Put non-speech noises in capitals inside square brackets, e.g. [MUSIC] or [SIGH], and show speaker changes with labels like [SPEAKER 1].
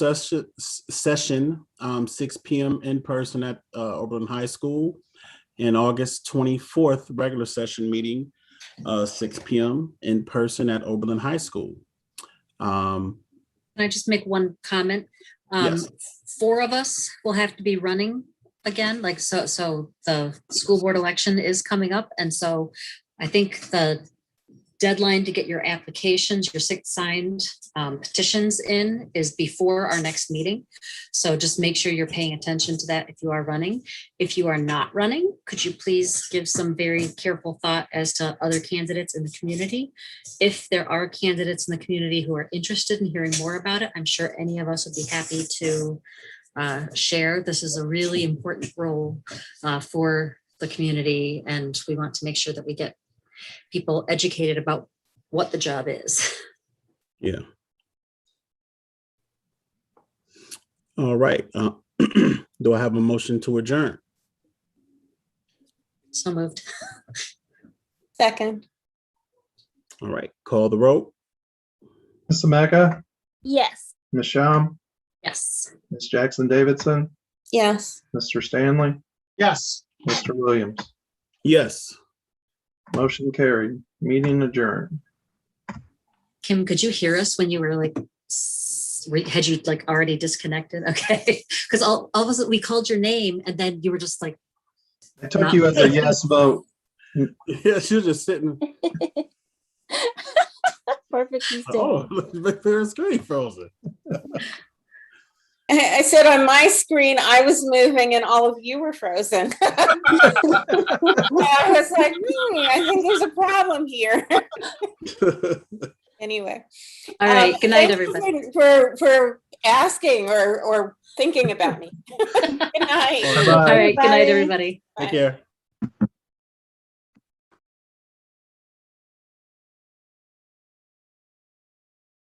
[SPEAKER 1] session, session, um, six P M in person at, uh, Oberlin High School. And August twenty-fourth, regular session meeting, uh, six P M in person at Oberlin High School. Um,
[SPEAKER 2] Can I just make one comment? Um,
[SPEAKER 1] Yes.
[SPEAKER 2] Four of us will have to be running again, like, so, so the school board election is coming up. And so I think the deadline to get your applications, your six signed um, petitions in is before our next meeting. So just make sure you're paying attention to that if you are running. If you are not running, could you please give some very careful thought as to other candidates in the community? if there are candidates in the community who are interested in hearing more about it, I'm sure any of us would be happy to uh, share. This is a really important role uh, for the community, and we want to make sure that we get people educated about what the job is. [LAUGHS]
[SPEAKER 1] yeah. All right, uh, [CLEARS THROAT] do I have a motion to adjourn?
[SPEAKER 2] So moved.
[SPEAKER 3] Second.
[SPEAKER 1] All right, call the roll.
[SPEAKER 4] Ms. Ameca,
[SPEAKER 3] Yes.
[SPEAKER 4] Ms. Shum,
[SPEAKER 2] Yes.
[SPEAKER 4] Ms. Jackson Davidson,
[SPEAKER 3] Yes. [LAUGHS]
[SPEAKER 4] Mr. Stanley,
[SPEAKER 5] Yes.
[SPEAKER 4] Mr. Williams.
[SPEAKER 1] Yes, [LAUGHS]
[SPEAKER 4] Motion carried. Meeting adjourned.
[SPEAKER 2] Kim, could you hear us when you were like, s- re- had you like already disconnected? [LAUGHS] Okay, because all, all of us, we called your name and then you were just like,
[SPEAKER 4] I took you as a yes vote.
[SPEAKER 1] yeah, she was just sitting,
[SPEAKER 3] Perfect mistake.
[SPEAKER 1] oh, [LAUGHS] look, her screen frozen. [LAUGHS]
[SPEAKER 3] I I said on my screen, I was moving and all of you were frozen. [LAUGHS] I was like, hmm, I think there's a problem here. [LAUGHS] Anyway.
[SPEAKER 2] all right,
[SPEAKER 3] um,
[SPEAKER 2] good night,
[SPEAKER 3] thank you
[SPEAKER 2] everybody.
[SPEAKER 3] For, for asking or, or thinking about me. [LAUGHS] Good night.
[SPEAKER 4] Bye.
[SPEAKER 2] All right, good night,
[SPEAKER 3] Bye.
[SPEAKER 2] everybody.
[SPEAKER 1] Take care.